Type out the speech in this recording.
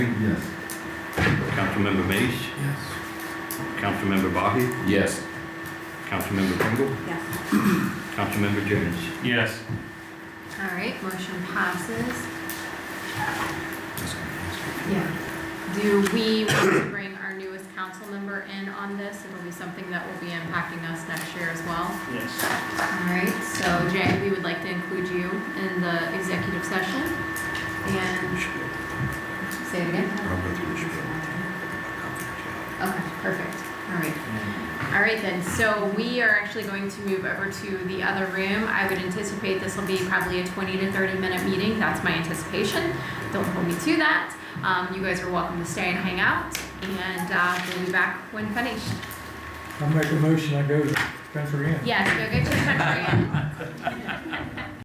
Councilmember Mace, Yes. Councilmember Bahi, Yes. Councilmember Pringle, Yes. Councilmember Jennings. Yes. All right, motion passes. Yeah. Do we want to bring our newest council member in on this? It'll be something that will be impacting us next year as well. Yes. All right, so Jay, we would like to include you in the executive session and say it again. Okay, perfect. All right. All right then, so we are actually going to move over to the other room. I would anticipate this will be probably a 20 to 30 minute meeting. That's my anticipation. Don't hold me to that. Um, you guys are welcome to stay and hang out, and uh, we'll be back when finished. I'll make a motion, I go to Spencer Inn. Yes, go get your country.